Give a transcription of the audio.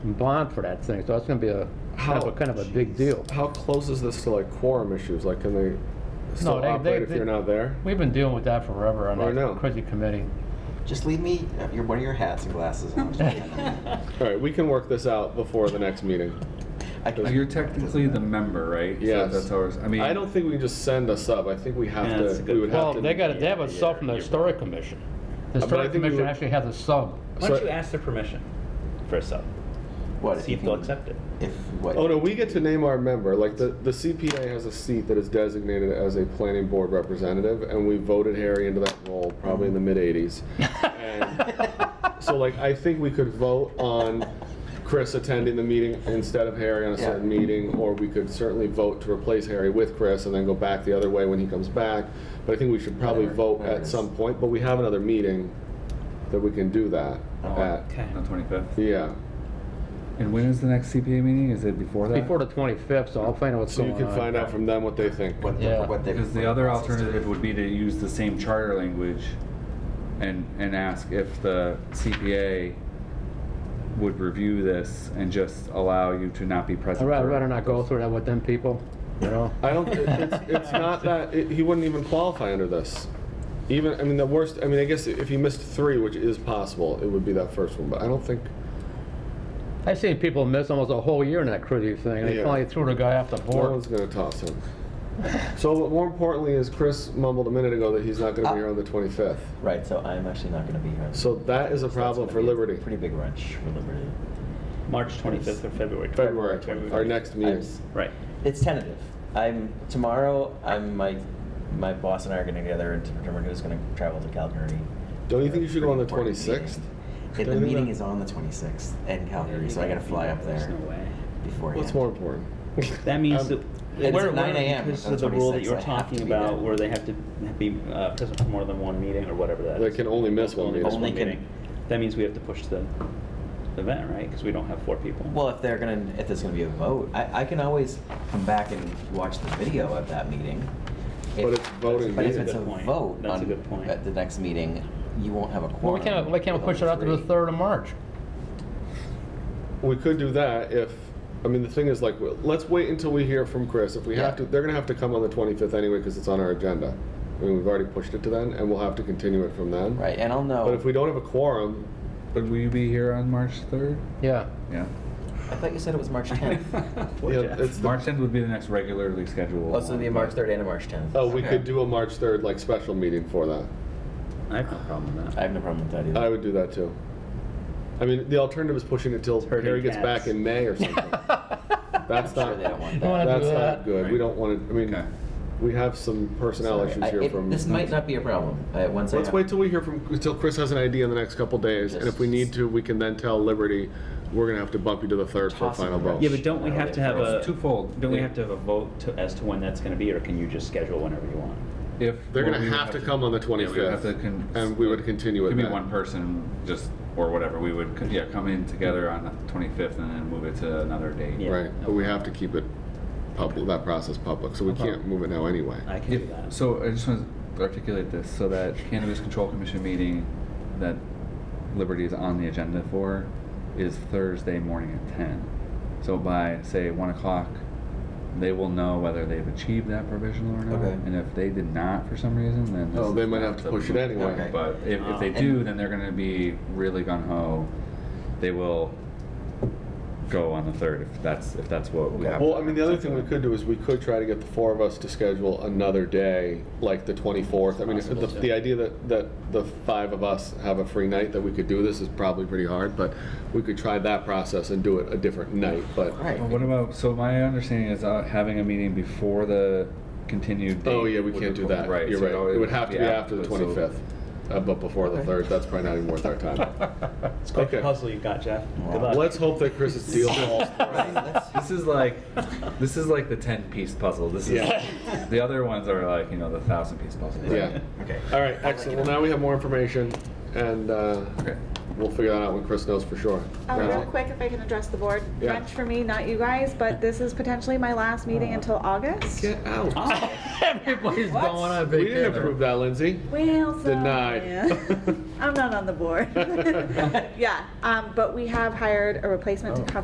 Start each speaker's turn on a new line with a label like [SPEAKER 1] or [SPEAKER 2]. [SPEAKER 1] bond for that thing, so that's gonna be a, kind of a, kind of a big deal.
[SPEAKER 2] How close is this to like quorum issues? Like, can they still
[SPEAKER 1] they- they-
[SPEAKER 2] operate if
[SPEAKER 1] they-
[SPEAKER 2] you're not there?
[SPEAKER 1] We've been dealing with that forever on
[SPEAKER 2] Oh, I know.
[SPEAKER 1] that crazy committee.
[SPEAKER 3] Just leave me uh, your, one of your hats and glasses. and I'll just hand them in.
[SPEAKER 2] All right, we can work this out before the next meeting.
[SPEAKER 3] I can-
[SPEAKER 4] Well, You're technically the member, right? So
[SPEAKER 2] Yes.
[SPEAKER 4] That's ours. I mean.
[SPEAKER 2] I don't think we can just send us up. I think we have
[SPEAKER 5] Yeah, that's
[SPEAKER 2] to,
[SPEAKER 5] a
[SPEAKER 2] we
[SPEAKER 5] good
[SPEAKER 2] would
[SPEAKER 1] Well,
[SPEAKER 2] have to. Uh,
[SPEAKER 1] they gotta, they have a sub from the historic commission. The historic
[SPEAKER 2] think we
[SPEAKER 1] commission
[SPEAKER 2] would-
[SPEAKER 1] actually has a sub.
[SPEAKER 5] Why don't
[SPEAKER 2] So-
[SPEAKER 5] you ask their permission for a sub?
[SPEAKER 3] What, if
[SPEAKER 5] See
[SPEAKER 3] you
[SPEAKER 5] if they'll
[SPEAKER 3] can-
[SPEAKER 5] accept it.
[SPEAKER 3] If, what?
[SPEAKER 2] Oh, no, we get to name our member. Like, the, the CPA has a seat that is designated as a planning board representative, and we voted Harry into that role probably in the mid-'80s. So, like, I think we could vote on Chris attending the meeting instead of Harry on a
[SPEAKER 3] Yeah.
[SPEAKER 2] certain meeting, or we could certainly vote to replace Harry with Chris and then go back the other way when he comes back. But I think we should probably
[SPEAKER 3] Whatever,
[SPEAKER 2] vote
[SPEAKER 3] whatever it
[SPEAKER 2] at
[SPEAKER 3] is.
[SPEAKER 2] some point, but we have another meeting that we can do that at.
[SPEAKER 4] On 25th.
[SPEAKER 2] Yeah.
[SPEAKER 4] And when is the next CPA meeting? Is it before that?
[SPEAKER 1] Before the twenty-fifth, so I'll find out what's
[SPEAKER 2] So
[SPEAKER 1] going
[SPEAKER 2] you
[SPEAKER 1] on.
[SPEAKER 2] can find out from them what they think.
[SPEAKER 3] What,
[SPEAKER 1] Yeah.
[SPEAKER 3] what, what they-
[SPEAKER 4] Because the other alternative would be to use the same charter language and, and ask if the CPA would review this and just allow you to not be
[SPEAKER 1] I'd
[SPEAKER 4] present.
[SPEAKER 1] rather,
[SPEAKER 4] for-
[SPEAKER 1] rather not go through that with them people, you know?
[SPEAKER 2] I don't. it- It's, it's not that it, he wouldn't even qualify under this. Even I mean the worst. I mean I guess if he missed three, which is possible, it would be that first one. But I don't think.
[SPEAKER 1] I've seen people miss almost a whole year in that crazy thing, and they
[SPEAKER 2] Yeah.
[SPEAKER 1] finally threw the guy off the
[SPEAKER 2] No
[SPEAKER 1] board.
[SPEAKER 2] one's going to toss him. So, but more importantly, is Chris mumbled a minute ago that he's not going to be here on the 25th.
[SPEAKER 3] Right, so I'm actually not gonna be here.
[SPEAKER 2] So that is a problem
[SPEAKER 3] That's
[SPEAKER 2] for
[SPEAKER 3] gonna be a
[SPEAKER 2] Liberty.
[SPEAKER 3] Pretty big wrench for Liberty.
[SPEAKER 5] March 25th or February 25th?
[SPEAKER 2] February, 25th, our next
[SPEAKER 3] I'm
[SPEAKER 2] meeting.
[SPEAKER 3] s-
[SPEAKER 5] Right.
[SPEAKER 3] It's tentative. I'm, tomorrow, I'm, my, my boss and I are getting together to determine who's gonna travel to Calgary.
[SPEAKER 2] Don't you think you should go on the 26th?
[SPEAKER 3] 26th? The
[SPEAKER 2] Don't you
[SPEAKER 3] meeting
[SPEAKER 2] think
[SPEAKER 3] is on the 26th in
[SPEAKER 5] Oh,
[SPEAKER 3] Calgary, so I gotta fly up
[SPEAKER 5] There's
[SPEAKER 3] there
[SPEAKER 5] no way.
[SPEAKER 3] beforehand.
[SPEAKER 2] What's more important?
[SPEAKER 5] That means that.
[SPEAKER 3] it's
[SPEAKER 5] where-
[SPEAKER 3] at 9
[SPEAKER 5] where-
[SPEAKER 3] a.m.
[SPEAKER 5] Because
[SPEAKER 3] on
[SPEAKER 5] of the rule that
[SPEAKER 3] 26th,
[SPEAKER 5] you were
[SPEAKER 3] I have to
[SPEAKER 5] talking
[SPEAKER 3] be there.
[SPEAKER 5] about, where they have to be uh, present for more than one meeting or whatever that is.
[SPEAKER 2] They can only miss one
[SPEAKER 5] Only
[SPEAKER 2] meeting.
[SPEAKER 5] miss one
[SPEAKER 3] Only can-
[SPEAKER 5] meeting. That means we have to push the event, right? Because we don't have four people.
[SPEAKER 3] Well, if they're gonna, if there's gonna be a vote, I, I can always come back and watch the video of that meeting. If-
[SPEAKER 2] But it's voting
[SPEAKER 3] But
[SPEAKER 2] meeting.
[SPEAKER 3] if it's a
[SPEAKER 5] That's a good point.
[SPEAKER 3] vote
[SPEAKER 5] That's a
[SPEAKER 3] on,
[SPEAKER 5] good point.
[SPEAKER 3] at the next meeting, you won't have a
[SPEAKER 1] Well,
[SPEAKER 3] quorum.
[SPEAKER 1] we can't, we can't
[SPEAKER 3] with
[SPEAKER 1] push it
[SPEAKER 3] only
[SPEAKER 1] out to the
[SPEAKER 3] three.
[SPEAKER 1] third of March.
[SPEAKER 2] We could do that if, I mean, the thing is like, well, let's wait until we hear from Chris. If we have to,
[SPEAKER 3] Yeah.
[SPEAKER 2] they're gonna have to come on the 25th anyway because it's on our agenda. I mean, we've already pushed it to then and we'll have to continue it from then.
[SPEAKER 3] Right, and I'll
[SPEAKER 2] But if
[SPEAKER 3] know,
[SPEAKER 2] we don't have a quorum,
[SPEAKER 4] But will you be here on March 3rd?
[SPEAKER 1] Yeah.
[SPEAKER 4] Yeah.
[SPEAKER 3] I thought you said it was March tenth.
[SPEAKER 5] Poor
[SPEAKER 2] you know,
[SPEAKER 5] Jeff.
[SPEAKER 2] it's the-
[SPEAKER 4] March 10th would be the next regularly scheduled.
[SPEAKER 3] Oh, so it'll be a
[SPEAKER 4] one,
[SPEAKER 3] March
[SPEAKER 4] but-
[SPEAKER 3] third and a March tenth.
[SPEAKER 2] oh, we
[SPEAKER 4] Okay.
[SPEAKER 2] could do a March 3rd like special meeting for that.
[SPEAKER 5] I have no problem with
[SPEAKER 3] I
[SPEAKER 5] that.
[SPEAKER 3] have no problem with that either.
[SPEAKER 2] I would do that too. I mean, the alternative is pushing it till
[SPEAKER 5] Herding
[SPEAKER 2] Harry gets
[SPEAKER 5] cats.
[SPEAKER 2] back in May or something. That's
[SPEAKER 3] I'm sure
[SPEAKER 2] not,
[SPEAKER 3] they don't want
[SPEAKER 1] You wanna
[SPEAKER 3] that.
[SPEAKER 1] do
[SPEAKER 2] that's
[SPEAKER 1] that?
[SPEAKER 2] not good. We
[SPEAKER 4] Right.
[SPEAKER 2] don't want to, I
[SPEAKER 4] Okay.
[SPEAKER 2] mean, we have some personnel
[SPEAKER 3] Sorry,
[SPEAKER 2] issues
[SPEAKER 3] I-
[SPEAKER 2] here
[SPEAKER 3] it-
[SPEAKER 2] from.
[SPEAKER 3] This might not be a problem, uh, once I
[SPEAKER 2] Let's
[SPEAKER 3] have-
[SPEAKER 2] wait till we hear from, till Chris has an idea in the next couple days, and if we need to, we can then tell Liberty, we're gonna have to bump you to the third for a final vote.
[SPEAKER 5] Yeah, but don't we
[SPEAKER 3] No,
[SPEAKER 5] have to
[SPEAKER 3] it's-
[SPEAKER 5] have a?
[SPEAKER 4] it's twofold.
[SPEAKER 5] Don't we
[SPEAKER 4] Yeah.
[SPEAKER 5] have to have a vote to, as to when that's going to be, or can you just schedule whenever you want?
[SPEAKER 4] If.
[SPEAKER 2] They're
[SPEAKER 4] well,
[SPEAKER 2] gonna
[SPEAKER 4] we would
[SPEAKER 2] have to come on the
[SPEAKER 4] yeah, we would
[SPEAKER 2] 25th,
[SPEAKER 4] have to con-
[SPEAKER 2] and we would continue
[SPEAKER 4] It
[SPEAKER 2] it
[SPEAKER 4] could be
[SPEAKER 2] then.
[SPEAKER 4] one person, just, or whatever, we would, co- yeah, come in together on the 25th and then move it to another date.
[SPEAKER 5] Yeah.
[SPEAKER 2] Right, but we have to keep it public, that process public, so we can't move it now anyway.
[SPEAKER 5] I can do
[SPEAKER 4] If,
[SPEAKER 5] that.
[SPEAKER 4] so I just want to articulate this, so that Cannabis Control Commission meeting that Liberty is on the agenda for is Thursday morning at ten. So by, say, one o'clock, they will know whether they've achieved that provisional or not.
[SPEAKER 3] Okay.
[SPEAKER 4] And if they did not for some reason, then. this
[SPEAKER 2] Oh, they
[SPEAKER 4] is
[SPEAKER 2] might have
[SPEAKER 4] not
[SPEAKER 2] to
[SPEAKER 4] the-
[SPEAKER 2] push it
[SPEAKER 3] Okay.
[SPEAKER 2] anyway.
[SPEAKER 4] But if, if they
[SPEAKER 5] Um, And-
[SPEAKER 4] do, then they're gonna be really gung ho. They will go on the third, if that's, if that's what we have.
[SPEAKER 2] Well, I mean, the other thing we could do is we could try to get the four of us to schedule another day, like the 24th. I mean, if the,
[SPEAKER 5] Possible, too.
[SPEAKER 2] the idea that, that the five of us have a free night that we could do this is probably pretty hard, but we could try that process and do it a different night, but.
[SPEAKER 3] Right.
[SPEAKER 4] Well, what about, so my understanding is uh, having a meeting before the continued date.
[SPEAKER 2] Oh, yeah, we
[SPEAKER 4] would
[SPEAKER 2] can't do
[SPEAKER 4] require-
[SPEAKER 2] that. You're
[SPEAKER 4] so
[SPEAKER 2] right. It would have to be after the
[SPEAKER 4] but so-
[SPEAKER 2] 25th, uh, but before the
[SPEAKER 3] Okay.
[SPEAKER 2] 3rd. That's probably not even worth our time.
[SPEAKER 5] It's quite
[SPEAKER 2] Okay.
[SPEAKER 5] the puzzle you've got, Jeff. Good luck.
[SPEAKER 2] Let's hope that Chris's deal falls.
[SPEAKER 3] Right, that's-
[SPEAKER 4] This is like, this is like the ten-piece puzzle. This is,
[SPEAKER 2] Yeah.
[SPEAKER 4] the other ones are like, you know, the thousand-piece puzzle.
[SPEAKER 2] Yeah.
[SPEAKER 3] Okay.
[SPEAKER 2] All right, excellent. Well, now we have more information, and uh,
[SPEAKER 4] Okay.
[SPEAKER 2] we'll figure that out when Chris knows for sure.
[SPEAKER 6] Um,
[SPEAKER 2] Yeah.
[SPEAKER 6] real quick, if I can address the board,
[SPEAKER 2] Yeah.
[SPEAKER 6] wrench for me, not you guys, but this is potentially my last
[SPEAKER 2] Uh-huh.
[SPEAKER 6] meeting until August.
[SPEAKER 2] Get out.
[SPEAKER 1] Everybody's going on
[SPEAKER 2] Ah, We didn't
[SPEAKER 1] vacation.
[SPEAKER 2] approve that, Lindsay.
[SPEAKER 6] Well, so.
[SPEAKER 2] Denied.
[SPEAKER 6] yeah. I'm not on the board. Yeah, um, but we have hired a replacement to
[SPEAKER 3] Oh.
[SPEAKER 6] cover